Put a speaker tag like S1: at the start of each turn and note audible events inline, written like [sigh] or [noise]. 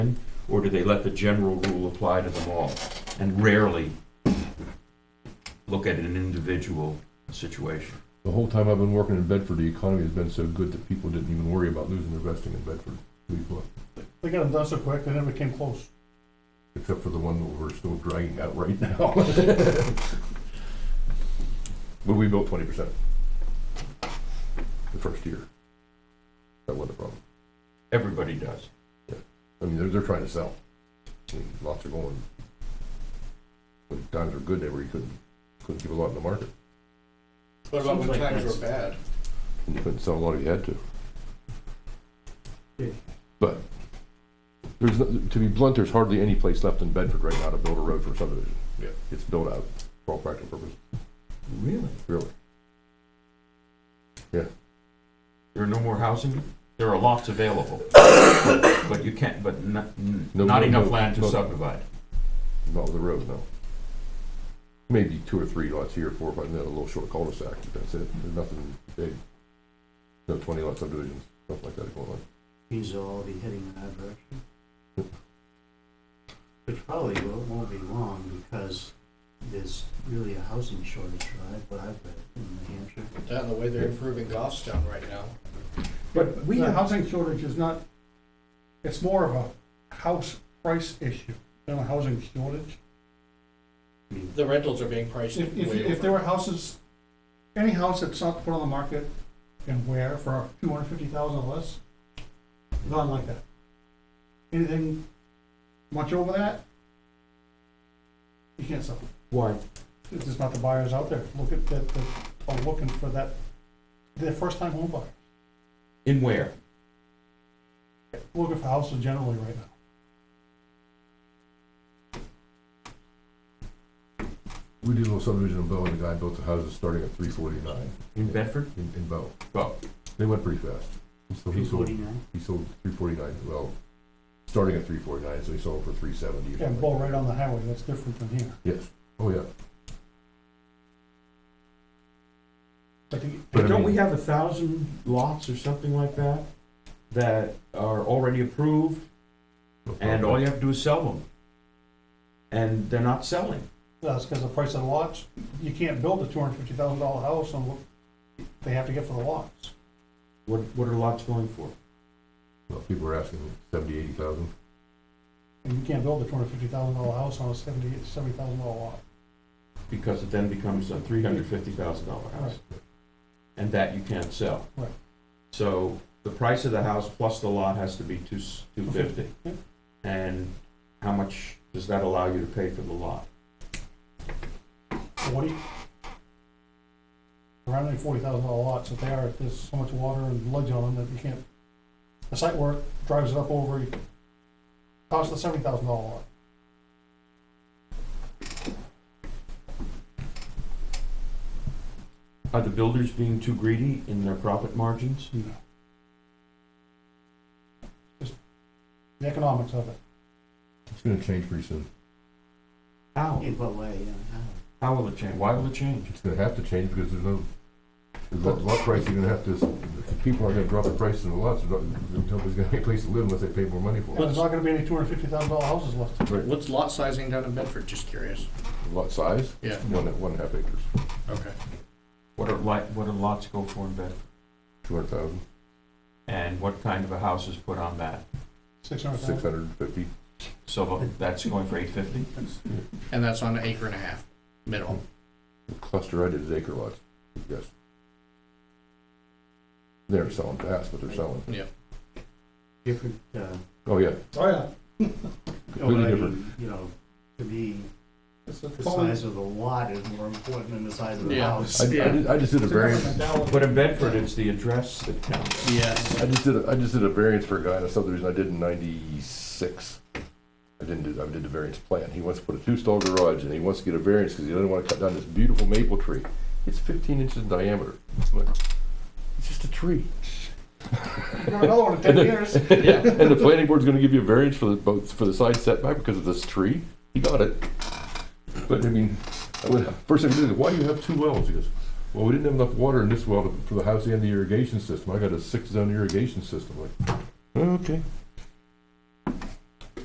S1: Or do they let the general rule apply to them all? And rarely look at an individual situation.
S2: The whole time I've been working in Bedford, the economy has been so good that people didn't even worry about losing their vesting in Bedford. We thought,
S3: They got them done so quick, they never came close.
S2: Except for the one that we're still dragging out right
S3: [laughs]
S2: now. But we built twenty percent. The first year. That wasn't a problem.
S1: Everybody does.
S2: I mean, they're, they're trying to sell. I mean, Lots are going. When times are good, they were, you couldn't, couldn't keep a lot in the market.
S4: What about when times were bad?
S2: and You couldn't sell a lot if you had to.
S3: Yeah.
S2: But there's, no- to be blunt, there's hardly any place left in Bedford right now to build a road for subdivision.
S4: Yeah.
S2: It's built out for all practical purposes.
S1: Really?
S2: Really. Yeah.
S1: There are no more housing? There are lots available, but you can't, but not, n-
S2: No,
S1: not
S2: no,
S1: enough
S2: no,
S1: land to
S2: no.
S1: subdivide.
S2: Not with the road, no. Maybe two or three lots here, four, or five, and then a little short cul-de-sac, but that's it. There's nothing big. No twenty lot subdivisions, stuff like that going on.
S5: These will all be heading in that direction. Which probably will- won't be long because there's really a housing shortage, right, what I've read in New Hampshire.
S4: Down the way they're improving Goffstown right now.
S3: But we, the housing shortage is not, it's more of a house price issue than a housing shortage.
S4: The rentals are being priced
S3: If, if,
S4: way
S3: if there
S4: over.
S3: were houses, any house that's not put on the market and where for two hundred fifty thousand or less, gone like that. Anything much over that, you can't sell.
S5: Why?
S3: It's just not the buyers out there. Look at that, that are looking for that, their first time home buyer.
S1: In where?
S3: looking for houses generally right now.
S2: We did a little subdivision in Bow, and the guy built the houses starting at three forty-nine
S1: In Bedford?
S2: in, in Bow.
S1: Well,
S2: They went pretty fast. And So he
S5: Three
S2: sold,
S5: forty-nine?
S2: he sold three forty-nine, well, starting at three forty-nine, so he sold for three seventy.
S3: Yeah, bull right on the highway, that's different than here.
S2: Yes, oh, yeah.
S3: But the,
S2: But I
S1: don't
S2: mean-
S1: we have a thousand lots or something like that, that are already approved, and all you have to do is sell them? And they're not selling.
S3: that's because the price of the lots, you can't build a two hundred fifty thousand dollar house on what they have to get for the lots.
S1: What, what are lots going for?
S2: Well, people were asking seventy, eighty thousand.
S3: And you can't build a two hundred fifty thousand dollar house on a seventy, seventy thousand dollar lot.
S1: Because it then becomes a three hundred fifty thousand dollar house. And that you can't sell.
S3: Right.
S1: So the price of the house plus the lot has to be two, two fifty.
S3: yeah.
S1: And how much does that allow you to pay for the lot?
S3: Forty? Around any forty thousand dollar lots, if they are, there's so much water and ledge on them that you can't, the site work drives it up over, costs the seventy thousand dollar lot.
S1: Are the builders being too greedy in their profit margins?
S3: No. Just the economics of it.
S2: It's gonna change pretty soon.
S1: How?
S5: In what way, yeah, how?
S1: How will it change? Why will it change?
S2: It's gonna have to change because there's no, there's lot, lot price, you're gonna have to, if people aren't gonna drop the price in the lots, there's not- nobody's gonna have a place to live unless they pay more money for
S3: There's not gonna be any two hundred fifty thousand dollar houses left.
S2: it.
S4: What's lot sizing down in Bedford, just curious?
S2: Lot size?
S4: Yeah.
S2: One, and- one and a half acres,
S4: Okay.
S1: What are li, what do lots go for in Bedford?
S2: two hundred thousand,
S1: And what kind of a house is put on that?
S3: Six hundred
S2: six
S3: thousand.
S2: hundred and fifty.
S1: So that's going for eight fifty?
S4: And that's on an acre and a half, minimum.
S2: The cluster I did is acre lots, yes. They're selling fast, but they're selling,
S5: Different, uh,
S2: oh, yeah,
S3: Oh, yeah.
S2: Completely
S5: I mean,
S2: different.
S5: You know, to me,
S3: It's a
S5: the
S3: totally-
S5: size of the lot is more important than the size of the
S4: Yeah.
S5: house.
S4: [laughs]
S2: I, I did, I just did a
S3: it's a different
S2: variance,
S3: mentality.
S1: But in Bedford, it's the address that counts.
S4: Yes.
S2: I just did, a I just did a variance for a guy in a subdivision I did in ninety-six. I didn't do, I did the variance plan. He wants to put a two-stall garage and he wants to get a variance because he doesn't want to cut down this beautiful maple tree. It's fifteen inches in diameter. I'm like, It's just a tree.
S3: You got another one in ten years.
S4: Yeah.
S2: And the planning board's gonna give you a variance for the, both, for the side setback because of this tree? He got it. But I mean, I went- first thing he did, why do you have two wells? He goes, well, we didn't have enough water in this well to- for the house and the irrigation system. I got a six-zone irrigation system. Like, okay.